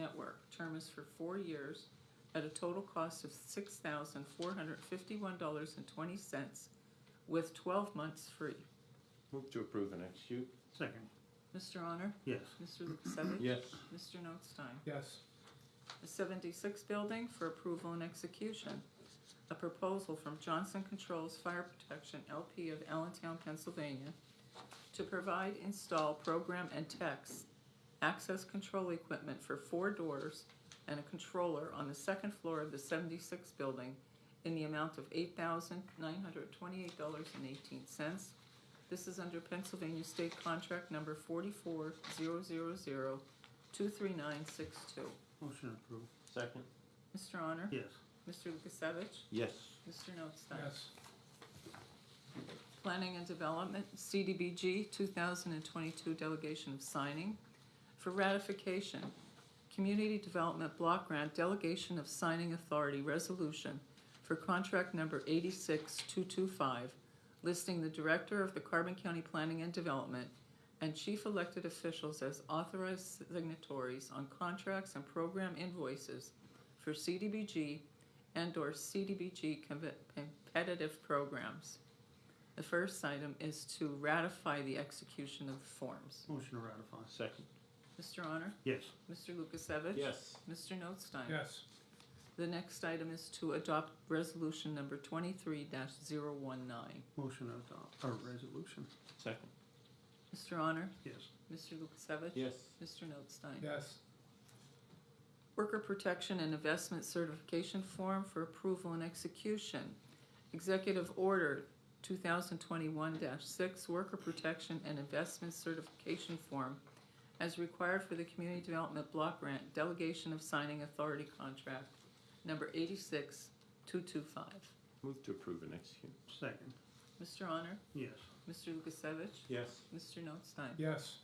Network. Term is for four years at a total cost of six thousand four hundred fifty-one dollars and twenty cents with twelve months free. Move to approve and execute. Second, Mr. Honor? yes. Mr. Lukasevich? Yes. Mr. Notstein? yes, The seventy-six building for approval and execution. A proposal from Johnson Controls Fire Protection LP of Allentown, Pennsylvania to provide, install, program, and text access control equipment for four doors and a controller on the second floor of the seventy-six building in the amount of eight thousand nine hundred twenty-eight dollars and eighteen cents. This is under Pennsylvania State Contract Number forty-four zero zero zero two three nine six two. Motion approved, Second. Mr. Honor? yes. Mr. Lukasevich? Yes. Mr. Notstein? yes, Planning and Development, CDBG, two thousand and twenty-two delegation of signing. For ratification, Community Development Block Grant Delegation of Signing Authority Resolution for contract number eighty-six two-two-five, listing the Director of the Carbon County Planning and Development and chief elected officials as authorized signatories on contracts and program invoices for CDBG and/or CDBG com- competitive programs. The first item is to ratify the execution of the forms. Motion to ratify, Second. Mr. Honor? yes. Mr. Lukasevich? Yes. Mr. Notstein? yes, The next item is to adopt resolution number twenty-three 19 Motion to adopt, or resolution, Second. Mr. Honor? yes. Mr. Lukasevich? Yes. Mr. Notstein? yes, Worker Protection and Investment Certification Form for Approval and Execution. Executive Order two thousand twenty-one six, Worker Protection and Investment Certification Form as required for the Community Development Block Grant Delegation of Signing Authority Contract, number eighty-six two-two-five. Move to approve and execute. Second, Mr. Honor? yes. Mr. Lukasevich? Yes. Mr. Notstein? yes,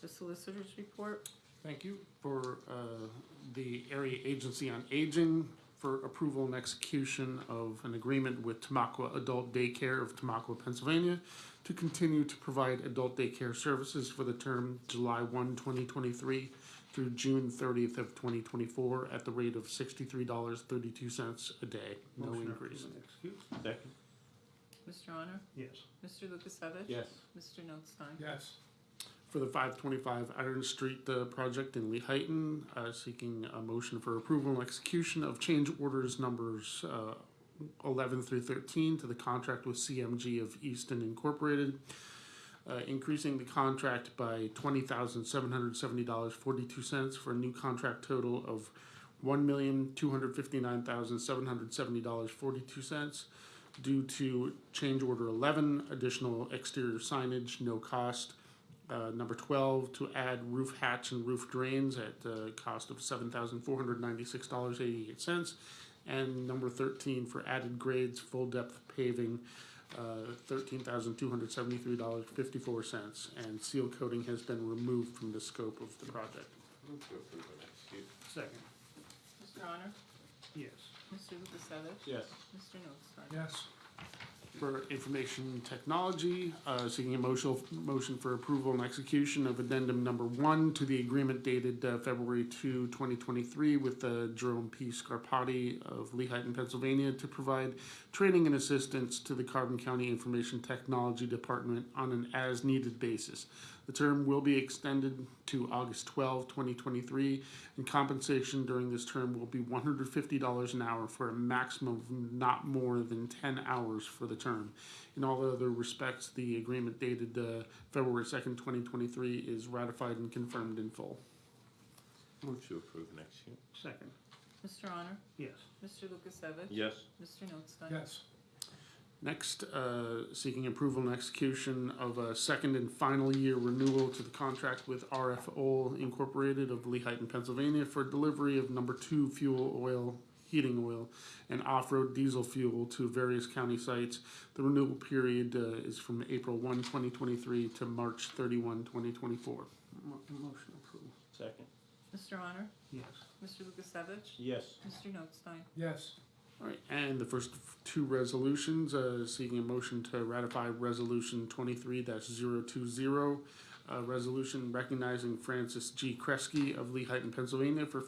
The Solicitor's Report? Thank you for uh, the Area Agency on Aging for approval and execution of an agreement with Tamaqua Adult Daycare of Tamaqua, Pennsylvania to continue to provide adult daycare services for the term July 1, 2023 through June 30th of 2024 at the rate of $63.32 a day, no Motion to increase. approve and Execute, Second. Mr. Honor? yes. Mr. Lukasevich? Yes. Mr. Notstein? yes, for the 525 Iron Street uh, project in Lehighton, uh, seeking a motion for approval and execution of change orders numbers uh, 11 through 13 to the contract with CMG of Easton Incorporated, uh, increasing the contract by $20,770.42 for a new contract total of $1,259,770.42 due to change order 11, additional exterior signage, no cost, uh, number 12 to add roof hatch and roof drains at the cost of $7,496.88. And number 13 for added grades, full depth paving, uh, $13,273.54. And seal coating has been removed from the scope of the project. Move to approve and execute. Second, Mr. Honor? yes. Mr. Lukasevich? Yes. Mr. Notstein? yes, for information technology, uh, seeking a motion, motion for approval and execution of addendum number one to the agreement dated uh, February 2, 2023 with uh, Jerome P. Scarpati of Lehighton, Pennsylvania to provide training and assistance to the Carbon County Information Technology Department on an as-needed basis. The term will be extended to August 12, 2023, and compensation during this term will be $150 an hour for a maximum of not more than 10 hours for the term. In all other respects, the agreement dated uh, February 2nd, 2023 is ratified and confirmed in full. Move to approve and execute. Second, Mr. Honor? yes. Mr. Lukasevich? Yes. Mr. Notstein? yes, Next, uh, seeking approval and execution of a second and final year renewal to the contract with RF Oil Incorporated of Lehighton, Pennsylvania for delivery of number two fuel oil, heating oil, and off-road diesel fuel to various county sites. The renewal period uh, is from April 1, 2023 to March 31, 2024. Mo- Motion approved, Second. Mr. Honor? yes. Mr. Lukasevich? Yes. Mr. Notstein? yes, All right, and the first two resolutions, uh, seeking a motion to ratify Resolution twenty-three 20 a resolution recognizing Francis G. Kresge of Lehighton, Pennsylvania for